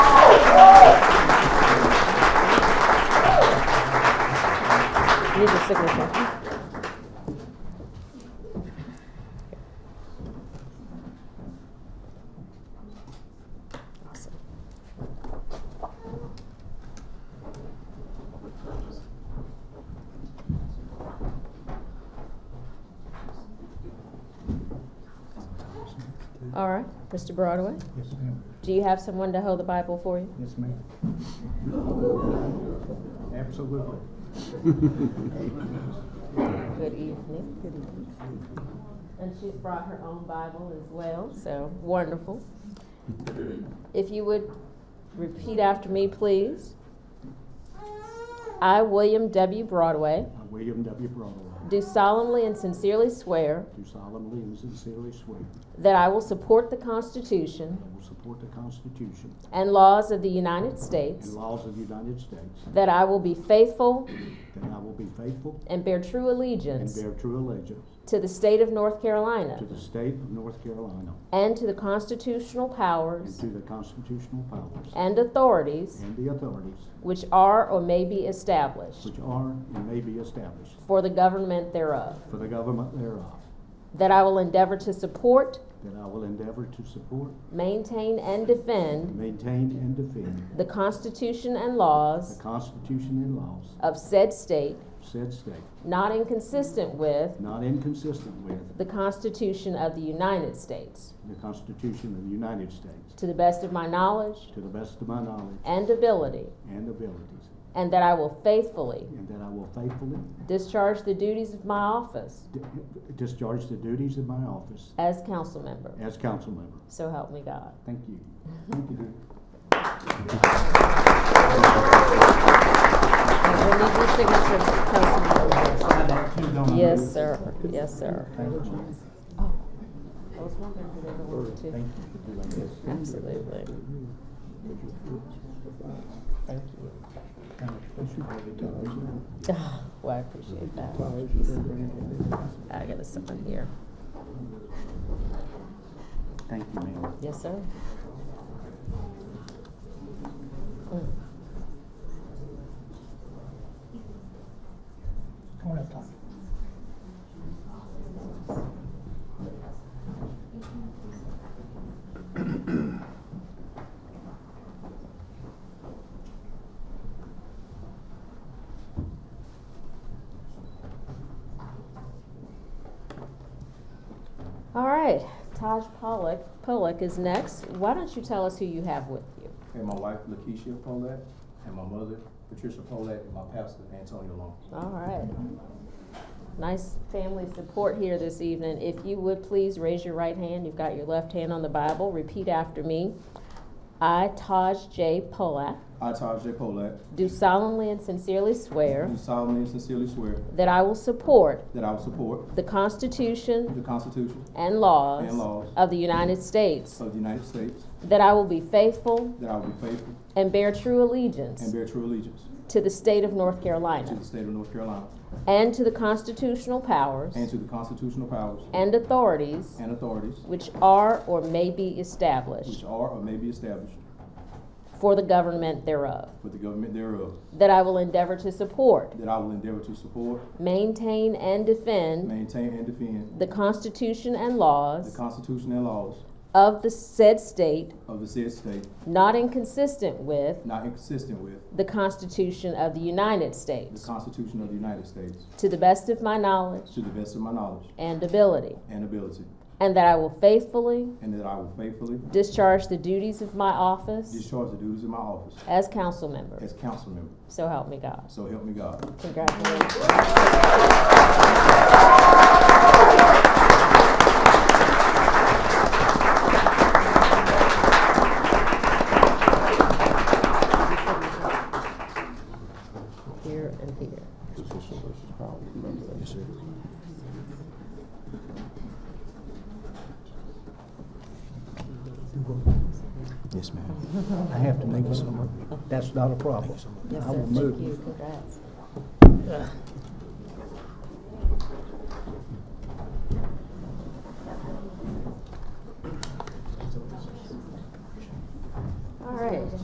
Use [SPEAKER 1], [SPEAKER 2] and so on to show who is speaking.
[SPEAKER 1] signature. Awesome. All right, Mr. Broadway,
[SPEAKER 2] Yes, ma'am.
[SPEAKER 1] do you have someone to hold the Bible for you?
[SPEAKER 2] Yes, ma'am. Absolutely.
[SPEAKER 1] Good evening. Good evening. And she's brought her own Bible as well, so wonderful. If you would repeat after me, please. I, William W. Broadway,
[SPEAKER 2] I, William W. Broadway,
[SPEAKER 1] do solemnly and sincerely swear
[SPEAKER 2] do solemnly and sincerely swear that
[SPEAKER 1] that I will support the Constitution
[SPEAKER 2] I will support the Constitution
[SPEAKER 1] and laws of the United
[SPEAKER 2] and
[SPEAKER 1] States,
[SPEAKER 2] laws of the United States,
[SPEAKER 1] that I will be faithful
[SPEAKER 2] that I will be faithful
[SPEAKER 1] and bear true
[SPEAKER 2] and
[SPEAKER 1] allegiance
[SPEAKER 2] bear true allegiance
[SPEAKER 1] to the state of North
[SPEAKER 2] to
[SPEAKER 1] Carolina
[SPEAKER 2] the state of North Carolina
[SPEAKER 1] and to the constitutional
[SPEAKER 2] and
[SPEAKER 1] powers
[SPEAKER 2] to the constitutional powers
[SPEAKER 1] and authorities
[SPEAKER 2] and the authorities
[SPEAKER 1] which are or may be established
[SPEAKER 2] which are and may be established
[SPEAKER 1] for the government thereof,
[SPEAKER 2] for the government thereof,
[SPEAKER 1] that I will endeavor to support,
[SPEAKER 2] that I will endeavor to support,
[SPEAKER 1] maintain, and defend
[SPEAKER 2] maintain, and defend
[SPEAKER 1] the Constitution and
[SPEAKER 2] the
[SPEAKER 1] laws
[SPEAKER 2] Constitution and laws
[SPEAKER 1] of said state,
[SPEAKER 2] of said state,
[SPEAKER 1] not inconsistent with
[SPEAKER 2] not inconsistent with
[SPEAKER 1] the Constitution of the United States,
[SPEAKER 2] the Constitution of the United States,
[SPEAKER 1] to the best of my knowledge
[SPEAKER 2] to the best of my knowledge
[SPEAKER 1] and ability,
[SPEAKER 2] and abilities,
[SPEAKER 1] and that I will faithfully
[SPEAKER 2] and that I will faithfully
[SPEAKER 1] discharge the duties of my office
[SPEAKER 2] di- discharge the duties of my office
[SPEAKER 1] as council member.
[SPEAKER 2] as council member.
[SPEAKER 1] So help me God.
[SPEAKER 2] Thank you. Thank you.
[SPEAKER 1] And we'll need your signature, Councilmember.
[SPEAKER 2] Thank you.
[SPEAKER 1] Yes, sir. Yes, sir.
[SPEAKER 2] Thank you.
[SPEAKER 1] Oh. I was wondering who they were with, too.
[SPEAKER 2] Thank you.
[SPEAKER 1] Absolutely.
[SPEAKER 3] Thank you.
[SPEAKER 1] Well, Oh, I appreciate that. I got a sign here.
[SPEAKER 2] Thank you, ma'am.
[SPEAKER 1] Yes, sir.
[SPEAKER 3] Come on up, Tom.
[SPEAKER 1] All right, Taj Pollock, Pollock is next. Why don't you tell us who you have with you?
[SPEAKER 4] And my wife, Lakeisha Polak, and my mother, Patricia Polak, and my pastor, Antonio Long.
[SPEAKER 1] All right. Nice family support here this evening. If you would please raise your right hand, you've got your left hand on the Bible. Repeat after me. I, Taj J. Pollock,
[SPEAKER 4] I, Taj J. Polak,
[SPEAKER 1] do solemnly and sincerely swear
[SPEAKER 4] do solemnly and sincerely swear
[SPEAKER 1] that I will support
[SPEAKER 4] that I will support
[SPEAKER 1] the Constitution
[SPEAKER 4] the Constitution
[SPEAKER 1] and laws,
[SPEAKER 4] And laws.
[SPEAKER 1] of the United States,
[SPEAKER 4] of the United States,
[SPEAKER 1] that I will be faithful
[SPEAKER 4] that I will be faithful
[SPEAKER 1] and bear true allegiance
[SPEAKER 4] and bear true allegiance
[SPEAKER 1] to the state of North
[SPEAKER 4] to
[SPEAKER 1] Carolina
[SPEAKER 4] the state of North Carolina
[SPEAKER 1] and to the constitutional powers
[SPEAKER 4] and to the constitutional powers
[SPEAKER 1] and authorities
[SPEAKER 4] and authorities
[SPEAKER 1] which are or may be
[SPEAKER 4] which
[SPEAKER 1] established
[SPEAKER 4] are or may be established
[SPEAKER 1] for the government thereof,
[SPEAKER 4] for the government thereof,
[SPEAKER 1] that I will endeavor to support,
[SPEAKER 4] that I will endeavor to support,
[SPEAKER 1] maintain, and defend
[SPEAKER 4] maintain, and defend
[SPEAKER 1] the Constitution and
[SPEAKER 4] the
[SPEAKER 1] laws
[SPEAKER 4] Constitution and laws
[SPEAKER 1] of the said state,
[SPEAKER 4] of the said state,
[SPEAKER 1] not inconsistent with
[SPEAKER 4] not inconsistent with
[SPEAKER 1] the Constitution of the United
[SPEAKER 4] the
[SPEAKER 1] States,
[SPEAKER 4] Constitution of the United States,
[SPEAKER 1] to the best of my knowledge
[SPEAKER 4] to the best of my knowledge
[SPEAKER 1] and ability,
[SPEAKER 4] and ability,
[SPEAKER 1] and that I will faithfully
[SPEAKER 4] and that I will faithfully
[SPEAKER 1] discharge the duties of my office
[SPEAKER 4] discharge the duties of my office
[SPEAKER 1] as council member.
[SPEAKER 4] as council member.
[SPEAKER 1] So help me God.
[SPEAKER 4] So help me God.
[SPEAKER 1] Congratulations. Here and here.
[SPEAKER 4] Yes, ma'am.
[SPEAKER 2] I have to make a, that's not a problem. I will
[SPEAKER 1] Thank
[SPEAKER 2] move.
[SPEAKER 1] you, congrats.